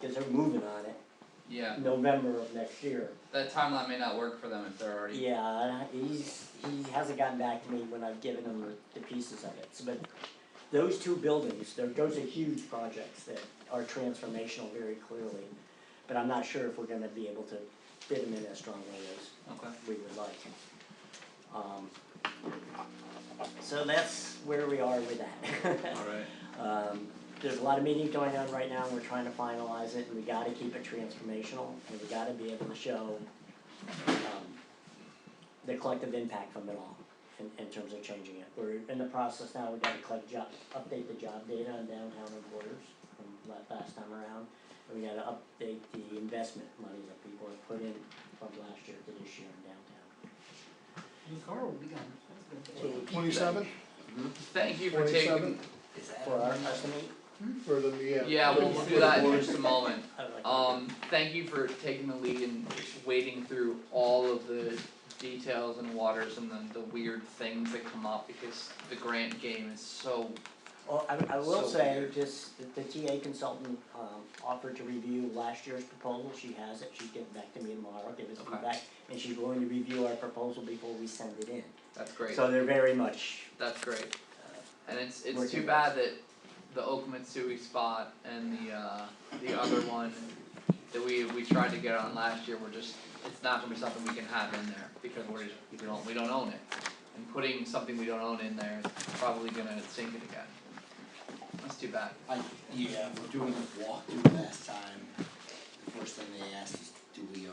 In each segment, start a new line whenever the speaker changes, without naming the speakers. they're moving on it,
Yeah,
November of next year.
that timeline may not work for them if they're already.
Yeah, and I- he's, he hasn't gotten back to me when I've given him the, the pieces of it, So, but those two buildings, there, those are huge projects that are transformational very clearly. But I'm not sure if we're gonna be able to fit them in as strongly as
Okay.
we would like. Um, so that's where we are with that.
All right.
Um, there's a lot of meetings going on right now, and we're trying to finalize it, and we gotta keep it transformational, and we gotta be able to show, um, the collective impact from it all, in, in terms of changing it. We're in the process now, we gotta collect job, update the job data on downtown reporters from la- last time around. And we gotta update the investment money that people have put in from last year to this year in downtown.
So the twenty-seventh
Thank you for taking.
27?
For our estimate,
for the, yeah.
Yeah, we'll
for
do
the
that in
board.
just a moment.
I would like. to-
Um, thank you for taking the lead and wading through all of the details and waters and the, the weird things that come up because the grant game is so.
Well, I, I will
So
say,
weird.
just, that the TA consultant, um, offered to review last year's proposal, she has it, she's getting back to me tomorrow, give us
Okay.
feedback, and she's willing to review our proposal before we send it in.
That's great.
So they're very much,
That's great. And it's it's
Working
too bad that the Okamatsui spot and the uh the other one that we we tried to get on last year, we're just, it's not gonna be something we can have in there because we're just, we don't, we don't own it. And putting something we don't own in there is probably gonna sink it again. That's too bad.
I, yeah, we're doing the walkthrough last time, the first thing they asked is, do we own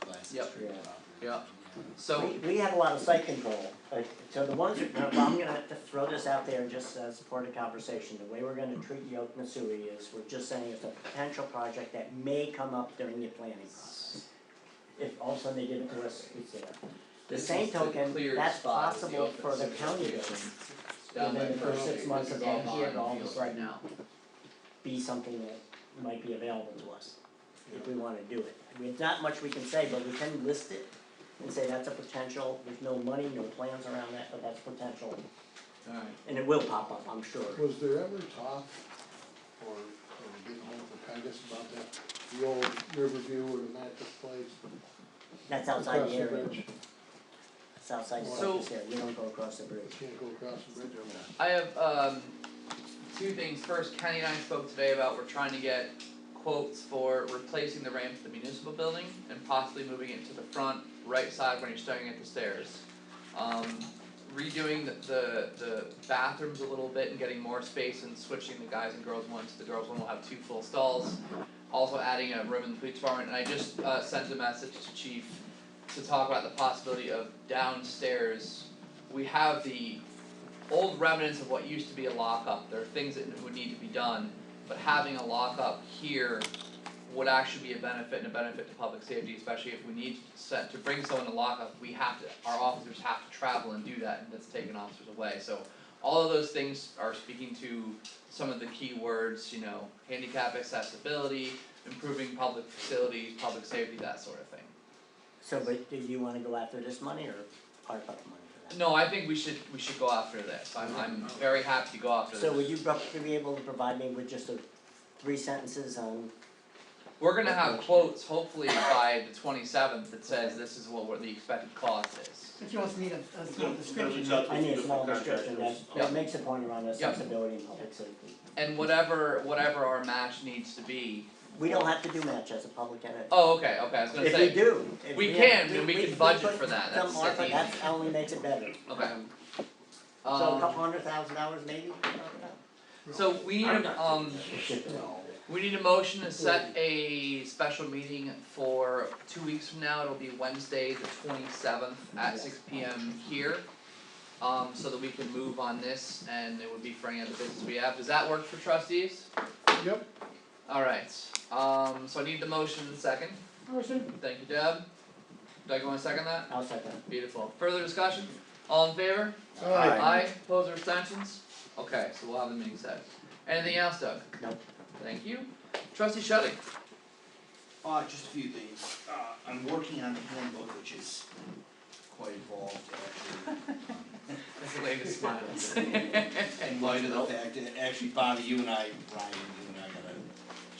the Class
Yep.
Street property?
Yeah.
Yeah.
So,
we, we had a lot of site control, uh, so the ones, that- well, I'm gonna have to throw this out there just as part of conversation, the way we're gonna treat the Okanasui is, we're just saying it's a potential project that may come up during the planning process. If all of a sudden they give it to us, it's there. The
This
same
is the
token,
clear
that's
spot is the
possible
open
for the
space
county
location.
building.
down by
within the first
Pearl
six
Street,
months
which
of
is all
that here,
bond
all of a
fields
sudden-
right now.
be something that might be available to us if we wanna do it. I mean, it's not much we can say, but we can list it and say that's a potential, there's no money, no plans around that, but that's potential.
Alright.
And it will pop up, I'm sure.
Was there ever talk, or, or getting hold of Titus about that, the old Riverview or the mattress place?
That's outside
across
the area,
bridge?
it's outside the
So-
surface area, you don't go across the
You
bridge.
can't go across the bridge over there.
I have um two things. First, Kenny and I spoke today about we're trying to get quotes for replacing the ramp to the municipal building and possibly moving it to the front right side when you're staring at the stairs. Um redoing the the the bathrooms a little bit and getting more space and switching the guys and girls one to the girls one will have two full stalls. Also adding a room in the police department and I just uh sent a message to chief to talk about the possibility of downstairs. We have the old remnants of what used to be a lockup. There are things that would need to be done, but having a lockup here would actually be a benefit and a benefit to public safety, especially if we need to set to bring someone to lockup, we have to, our officers have to travel and do that, and that's taking officers away, so. All of those things are speaking to some of the key words, you know, handicap accessibility, improving public facilities, public safety, that sort of thing.
So, but do you wanna go after this money or ARPA money for that?
No, I think we should, we should go after this, I'm, I'm very happy to go after this.
So would you roughly be able to provide me with just a three sentences on,
We're gonna have quotes hopefully by the twenty seventh that says this is what we're- the expected cost is.
But you also need a, a small description.
I need a small description that,
Yeah.
that makes a point around
Yeah.
accessibility and public safety.
And whatever whatever our match needs to be.
We don't have to do match as a public entity.
Oh, okay, okay, I was gonna
If we
say,
do, if
we
we
can,
have,
then we
we
can
we
budget
put
for that,
some
that's-
ARPA,
that's
that's
easy.
only makes it better.
Okay.
Um, So a
um,
couple hundred thousand dollars maybe?
so we need, a- um,
No,
we need a motion to set a special meeting for two weeks from now, it'll be Wednesday, the twenty seventh at six P M here. Um, so that we can move on this and it would be for any other business we have, does that work for trustees?
Yep,
Alright, um, so I need the motion and second. Motion. Thank you, Deb. Doug, you wanna second that?
I'll second.
Beautiful. Further discussion? All in favor?
alright,
Aye, opposed or abstentions? Okay, so we'll have the meeting set. Anything else, Doug?
Nope.
Thank you. Trustee Shetty,
Uh, just a few things, uh, I'm working on the handbook, which is quite involved, actually.
that's the latest smiles.
In light of the fact that, actually, Bobby, you and I, Ryan,